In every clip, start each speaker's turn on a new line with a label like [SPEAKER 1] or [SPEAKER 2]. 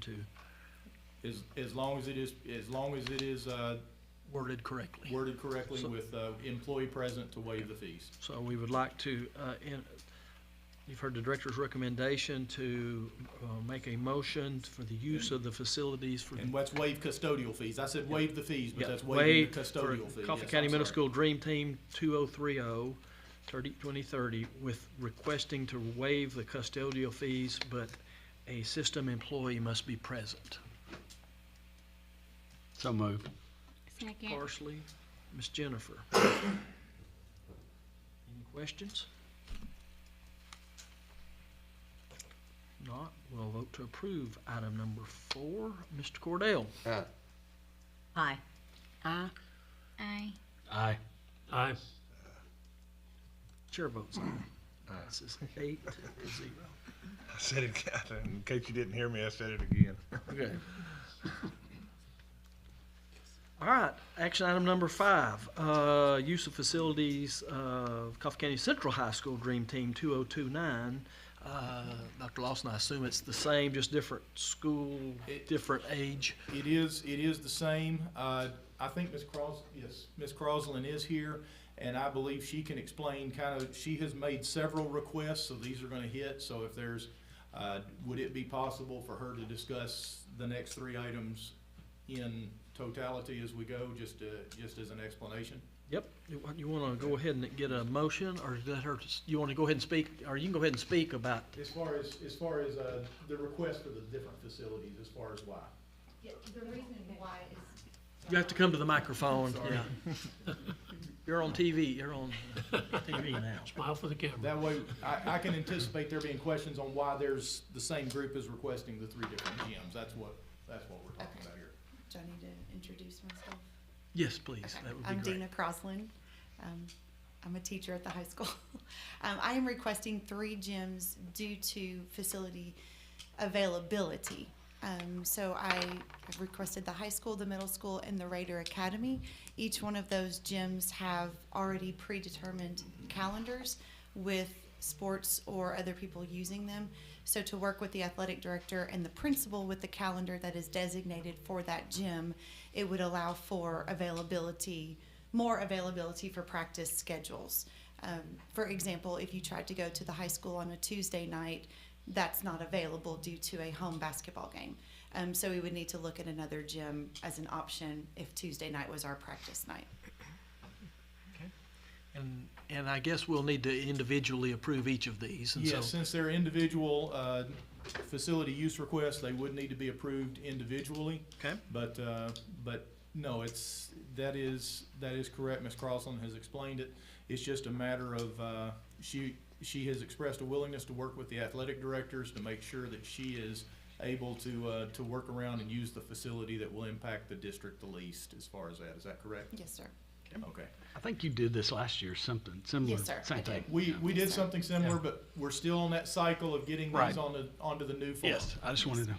[SPEAKER 1] to
[SPEAKER 2] As, as long as it is, as long as it is uh,
[SPEAKER 1] worded correctly.
[SPEAKER 2] worded correctly with uh, employee present to waive the fees.
[SPEAKER 1] So we would like to, uh, in, you've heard the director's recommendation to, uh, make a motion for the use of the facilities for.
[SPEAKER 2] And let's waive custodial fees. I said waive the fees, but
[SPEAKER 1] Mhm. Yeah,
[SPEAKER 2] that's waiving the
[SPEAKER 1] waived for
[SPEAKER 2] custodial fee.
[SPEAKER 1] Coffee
[SPEAKER 2] Yes,
[SPEAKER 1] County
[SPEAKER 2] I'm
[SPEAKER 1] Middle
[SPEAKER 2] sorry.
[SPEAKER 1] School Dream Team 2030, 30, 2030, with requesting to waive the custodial fees, but a system employee must be present.
[SPEAKER 3] So moved.
[SPEAKER 4] Second.
[SPEAKER 1] Parsley, Ms. Jennifer. Any questions? Not, we'll vote to approve item number four. Mr. Cordell?
[SPEAKER 3] Aye.
[SPEAKER 5] Aye.
[SPEAKER 4] Aye. Aye.
[SPEAKER 3] Aye.
[SPEAKER 6] Aye.
[SPEAKER 1] Chair votes aye. This is eight to zero.
[SPEAKER 7] I said it, again. in case you didn't hear me, I said it again.
[SPEAKER 3] Okay.
[SPEAKER 1] All right, action item number five, uh, use of facilities of Coffee County Central High School Dream Team 2029. Uh, Dr. Lawson, I assume it's the same, just different school,
[SPEAKER 2] It-
[SPEAKER 1] different age.
[SPEAKER 2] It is, it is the same. Uh, I think Ms. Cros, yes, Ms. Crosland is here, and I believe she can explain kind of, she has made several requests, so these are gonna hit. So if there's, uh, would it be possible for her to discuss the next three items in totality as we go, just, uh, just as an explanation?
[SPEAKER 1] Yep, you want- you wanna go ahead and get a motion, or is that her, you wanna go ahead and speak, or you can go ahead and speak about,
[SPEAKER 2] As far as, as far as, uh, the request for the different facilities, as far as why?
[SPEAKER 8] Yeah, the reason why is
[SPEAKER 1] you have to come to the microphone, yeah. You're on TV, you're on uh, TV now.
[SPEAKER 6] Smile for the camera.
[SPEAKER 2] That way, I, I can anticipate there being questions on why there's, the same group is requesting the three different gyms. That's what, that's what we're talking about here.
[SPEAKER 8] Do I need to introduce myself?
[SPEAKER 1] Yes, please,
[SPEAKER 8] Okay.
[SPEAKER 1] that would be
[SPEAKER 8] I'm
[SPEAKER 1] great.
[SPEAKER 8] Dina Crosland. Um, I'm a teacher at the high school. Um, I am requesting three gyms due to facility availability. Um, so I have requested the high school, the middle school, and the Raider Academy. Each one of those gyms have already predetermined calendars with sports or other people using them. So to work with the athletic director and the principal with the calendar that is designated for that gym, it would allow for availability, more availability for practice schedules. Um, for example, if you tried to go to the high school on a Tuesday night, that's not available due to a home basketball game. Um, so we would need to look at another gym as an option if Tuesday night was our practice night.
[SPEAKER 1] And, and I guess we'll need to individually approve each of these, and
[SPEAKER 2] Yes,
[SPEAKER 1] so,
[SPEAKER 2] since they're individual, uh, facility use requests, they would need to be approved individually.
[SPEAKER 1] okay?
[SPEAKER 2] But, uh, but no, it's, that is, that is correct. Ms. Crosland has explained it. It's just a matter of, uh, she, she has expressed a willingness to work with the athletic directors to make sure that she is able to, uh, to work around and use the facility that will impact the district the least as far as that. Is that correct?
[SPEAKER 8] Yes, sir.
[SPEAKER 2] Okay.
[SPEAKER 3] I think you did this last year, something similar.
[SPEAKER 8] Yes, sir,
[SPEAKER 3] Same
[SPEAKER 8] I did.
[SPEAKER 3] thing.
[SPEAKER 2] We, we did something similar, but we're still on that cycle of getting
[SPEAKER 3] Right.
[SPEAKER 2] these on the, onto the new form.
[SPEAKER 3] Yes, I just wanted to.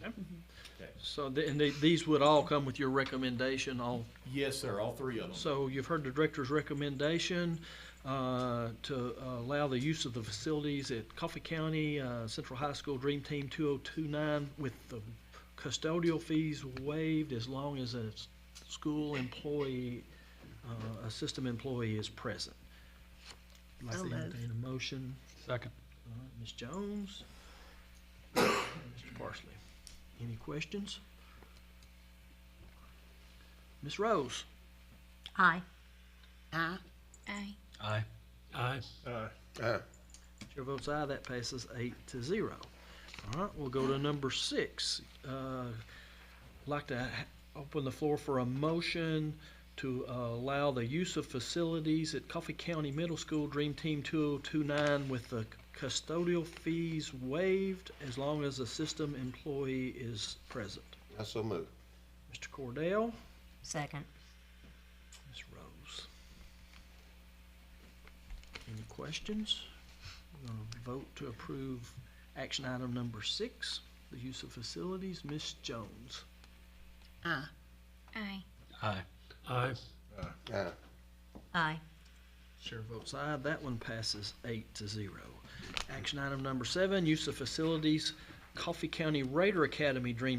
[SPEAKER 1] So, the- and the- these would all come with your recommendation, all
[SPEAKER 2] Yes, sir, all three of them.
[SPEAKER 1] So you've heard the director's recommendation uh, to allow the use of the facilities at Coffee County uh, Central High School Dream Team 2029 with the custodial fees waived as long as a s- school employee, uh, a system employee is present. I'd Like
[SPEAKER 5] So
[SPEAKER 1] to
[SPEAKER 5] moved.
[SPEAKER 1] entertain a motion,
[SPEAKER 3] Second.
[SPEAKER 1] All right, Ms. Jones, and Mr. Parsley. Any questions? Ms. Rose?
[SPEAKER 5] Aye.
[SPEAKER 4] Aye. Aye.
[SPEAKER 3] Aye.
[SPEAKER 6] Aye.
[SPEAKER 7] Uh,
[SPEAKER 1] Chair votes aye, that passes eight to zero. All right, we'll go to number six. Uh, Like to ha- open the floor for a motion to uh, allow the use of facilities at Coffee County Middle School Dream Team 2029 with the custodial fees waived as long as a system employee is present.
[SPEAKER 9] I so move.
[SPEAKER 1] Mr. Cordell?
[SPEAKER 5] Second.
[SPEAKER 1] Ms. Rose. Any questions? We're gonna vote to approve action item number six, the use of facilities. Ms. Jones.
[SPEAKER 5] Aye.
[SPEAKER 4] Aye.
[SPEAKER 3] Aye.
[SPEAKER 6] Aye.
[SPEAKER 9] Aye.
[SPEAKER 5] Aye.
[SPEAKER 1] Chair votes aye. That one passes eight to zero. Action item number seven, use of facilities, Coffee County Raider Academy Dream